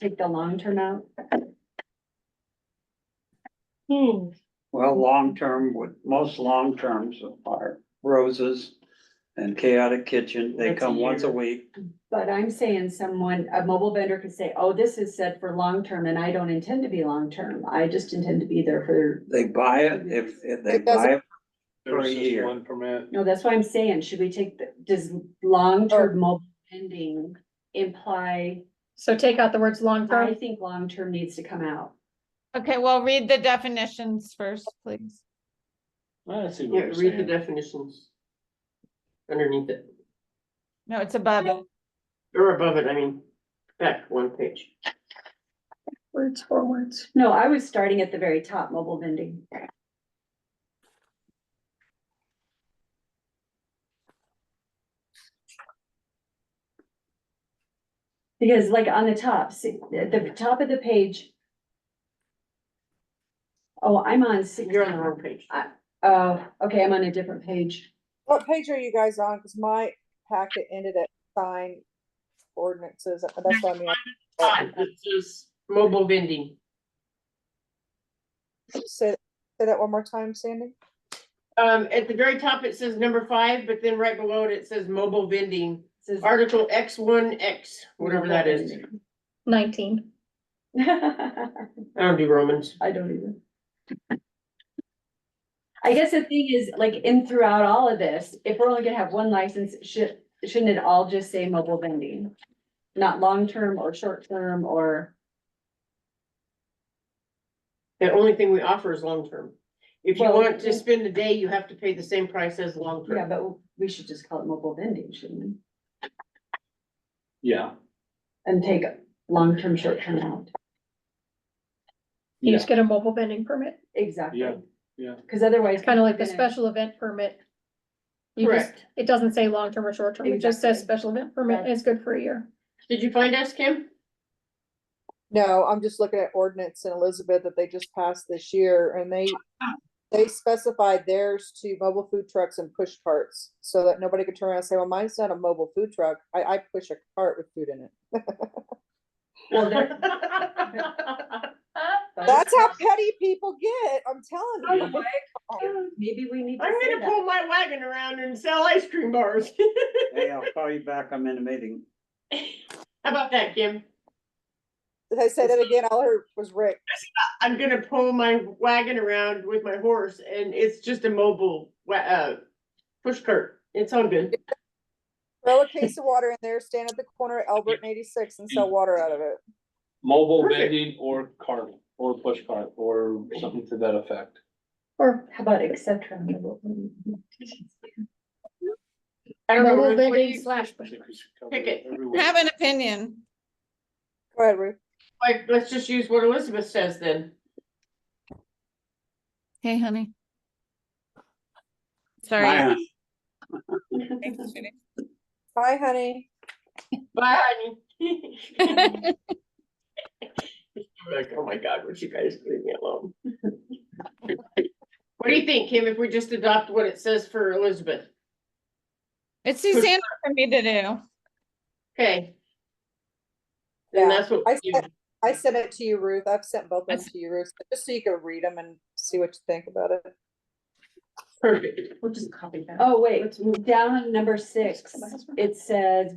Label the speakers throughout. Speaker 1: take the long term out.
Speaker 2: Hmm,
Speaker 3: Well, long-term, would most long-terms are roses and chaotic kitchen. They
Speaker 4: Once a
Speaker 3: come once a
Speaker 4: year.
Speaker 3: week.
Speaker 1: But I'm saying someone, a mobile vendor could say, oh, this is set for long term and I don't intend to be long term. I just intend to be there for.
Speaker 3: They buy it if, if they
Speaker 2: It doesn't-
Speaker 3: buy it.
Speaker 4: There's
Speaker 3: For a
Speaker 4: just
Speaker 3: year.
Speaker 4: One permit.
Speaker 1: No, that's why I'm saying, should we take, the does long term mobile vending imply,
Speaker 5: So take out the words
Speaker 1: I
Speaker 5: long-term.
Speaker 1: think long term needs to come out.
Speaker 6: Okay, well, read the definitions first, please.
Speaker 4: I see
Speaker 2: yeah,
Speaker 4: what you're
Speaker 2: read the
Speaker 4: saying.
Speaker 2: definitions. Underneath it,
Speaker 6: No, it's above it.
Speaker 2: or above it, I mean, back one page.
Speaker 5: Words forwards.
Speaker 1: No, I was starting at the very top, mobile vending. Because like on the top, see, at the top of the page. Oh, I'm on six,
Speaker 2: You're on the wrong page.
Speaker 1: oh, okay, I'm on a different page.
Speaker 7: What page are you guys on? Cause my packet ended at sign ordinances, that's what I mean,
Speaker 2: Fine, it says mobile vending.
Speaker 7: say, say that one more time, Sandy?
Speaker 2: Um, at the very top, it says number five, but then right below it, it says mobile vending,
Speaker 1: It says-
Speaker 2: article X one X, whatever that is.
Speaker 5: Nineteen.
Speaker 1: I
Speaker 2: I don't do Romans.
Speaker 1: don't either. I guess the thing is, like, in throughout all of this, if we're only gonna have one license, should, shouldn't it all just say mobile vending? Not long-term or short-term or,
Speaker 2: The only thing we offer is long-term. If you
Speaker 1: Well-
Speaker 2: want to spend a day, you have to pay the same price as
Speaker 1: yeah,
Speaker 2: long-term.
Speaker 1: but we should just call it mobile vending, shouldn't we?
Speaker 4: Yeah,
Speaker 1: And take long-term, short-term out.
Speaker 5: You
Speaker 4: yeah,
Speaker 5: just get a mobile vending permit.
Speaker 1: Exactly.
Speaker 4: Yeah, yeah.
Speaker 1: Cause otherwise.
Speaker 5: It's kind of like the
Speaker 1: we're gonna-
Speaker 5: special event permit. You just,
Speaker 2: Correct.
Speaker 5: it doesn't say long-term or short-term. It just says
Speaker 1: Exactly.
Speaker 5: special event permit. and It's good for a year.
Speaker 2: Did you find us, Kim?
Speaker 7: No, I'm just looking at ordinance in Elizabeth that they just passed this year and they, they specified theirs to mobile food trucks and push carts. So that nobody could turn around and say, well, mine's not a mobile food truck. I, I push a cart with food in it.
Speaker 1: Well, there-
Speaker 7: That's how petty people get, I'm telling you.
Speaker 1: Maybe we need to
Speaker 2: I'm
Speaker 1: say
Speaker 2: gonna
Speaker 1: that.
Speaker 2: pull my wagon around and sell ice cream bars.
Speaker 3: Hey, I'll call you back. I'm in a meeting.
Speaker 2: How about that, Kim?
Speaker 7: Did I say that again? All I heard was Rick.
Speaker 2: I'm gonna pull my wagon around with my horse and it's just a mobile wa- uh push cart. It's all good.
Speaker 7: Throw a case of water in there, stand at the corner of Albert and eighty-six and sell water out of it.
Speaker 4: mobile
Speaker 2: Perfect.
Speaker 4: vending or cart, or push cart, or something to that effect.
Speaker 5: Or
Speaker 1: How about et cetera? mobile vending?
Speaker 2: I don't know.
Speaker 5: mobile
Speaker 2: Ruth, what do
Speaker 5: vending
Speaker 2: you-
Speaker 5: slash
Speaker 4: I
Speaker 5: push.
Speaker 4: think we should cover
Speaker 2: Pick it.
Speaker 4: everywhere.
Speaker 6: Have an opinion.
Speaker 7: Go ahead, Ruth.
Speaker 2: Like, let's just use what Elizabeth says then.
Speaker 6: Hey, honey.
Speaker 3: Hi,
Speaker 6: Sorry.
Speaker 3: hon.
Speaker 6: Thanks, sweetie.
Speaker 7: Hi, honey.
Speaker 2: Bye, honey. Like, oh my God, would you guys leave me alone? What do you think, Kim, if we just adopt what it says for Elizabeth?
Speaker 6: It's Suzanne for me to do.
Speaker 2: Okay. Then
Speaker 7: Yeah,
Speaker 2: that's what.
Speaker 7: I
Speaker 2: we
Speaker 7: said-
Speaker 2: do.
Speaker 7: I sent it to you, Ruth. I've sent both of them
Speaker 6: That's-
Speaker 7: to you, Ruth, just so you can read them and see what you think about it.
Speaker 2: Perfect. We'll just copy that.
Speaker 1: Oh, wait, down on number six, it says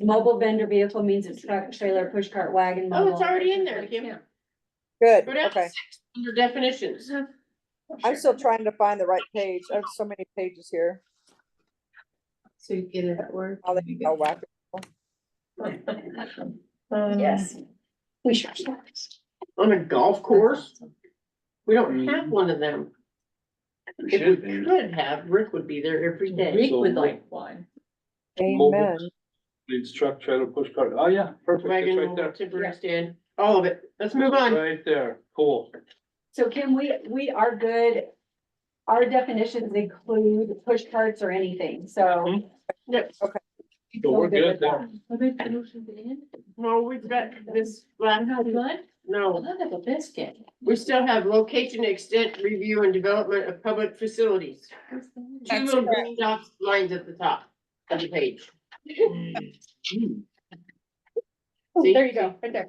Speaker 1: mobile vendor vehicle means a truck, trailer, push cart, wagon,
Speaker 2: Oh,
Speaker 1: mobile.
Speaker 2: it's already in there, Kim.
Speaker 7: Good,
Speaker 2: Go down to
Speaker 7: okay.
Speaker 2: six, under definitions.
Speaker 7: I'm still trying to find the right page. I have so many pages here.
Speaker 8: So you get it at work.
Speaker 7: I'll let you go whack.
Speaker 1: Yes.
Speaker 5: We should.
Speaker 2: On a golf course? We don't have one of them.
Speaker 3: We
Speaker 2: If
Speaker 3: should
Speaker 2: we
Speaker 3: be.
Speaker 2: could have, Rick would be there every day.
Speaker 8: Rick would like one.
Speaker 4: Mobile
Speaker 7: Amen.
Speaker 4: Needs truck, trailer, push cart. Oh, yeah, perfect. It's
Speaker 2: Wagon,
Speaker 4: right
Speaker 2: mobile,
Speaker 4: there.
Speaker 2: temporary stand, all of it. Let's move on.
Speaker 4: Right there. Cool.
Speaker 1: So Kim, we, we are good. Our definitions include push carts or anything, so.
Speaker 2: Yep.
Speaker 4: Mm-hmm. So we're good
Speaker 1: with that.
Speaker 8: I make the motion to end.
Speaker 2: No, we've got this
Speaker 8: I'm
Speaker 2: last,
Speaker 8: not good.
Speaker 2: no,
Speaker 8: Well, I have a biscuit.
Speaker 2: we still have location extent review and development of public facilities. Two
Speaker 6: That's
Speaker 2: little green dots lines at the top of the page.
Speaker 5: There
Speaker 2: See?
Speaker 1: Oh,
Speaker 5: you go, right there.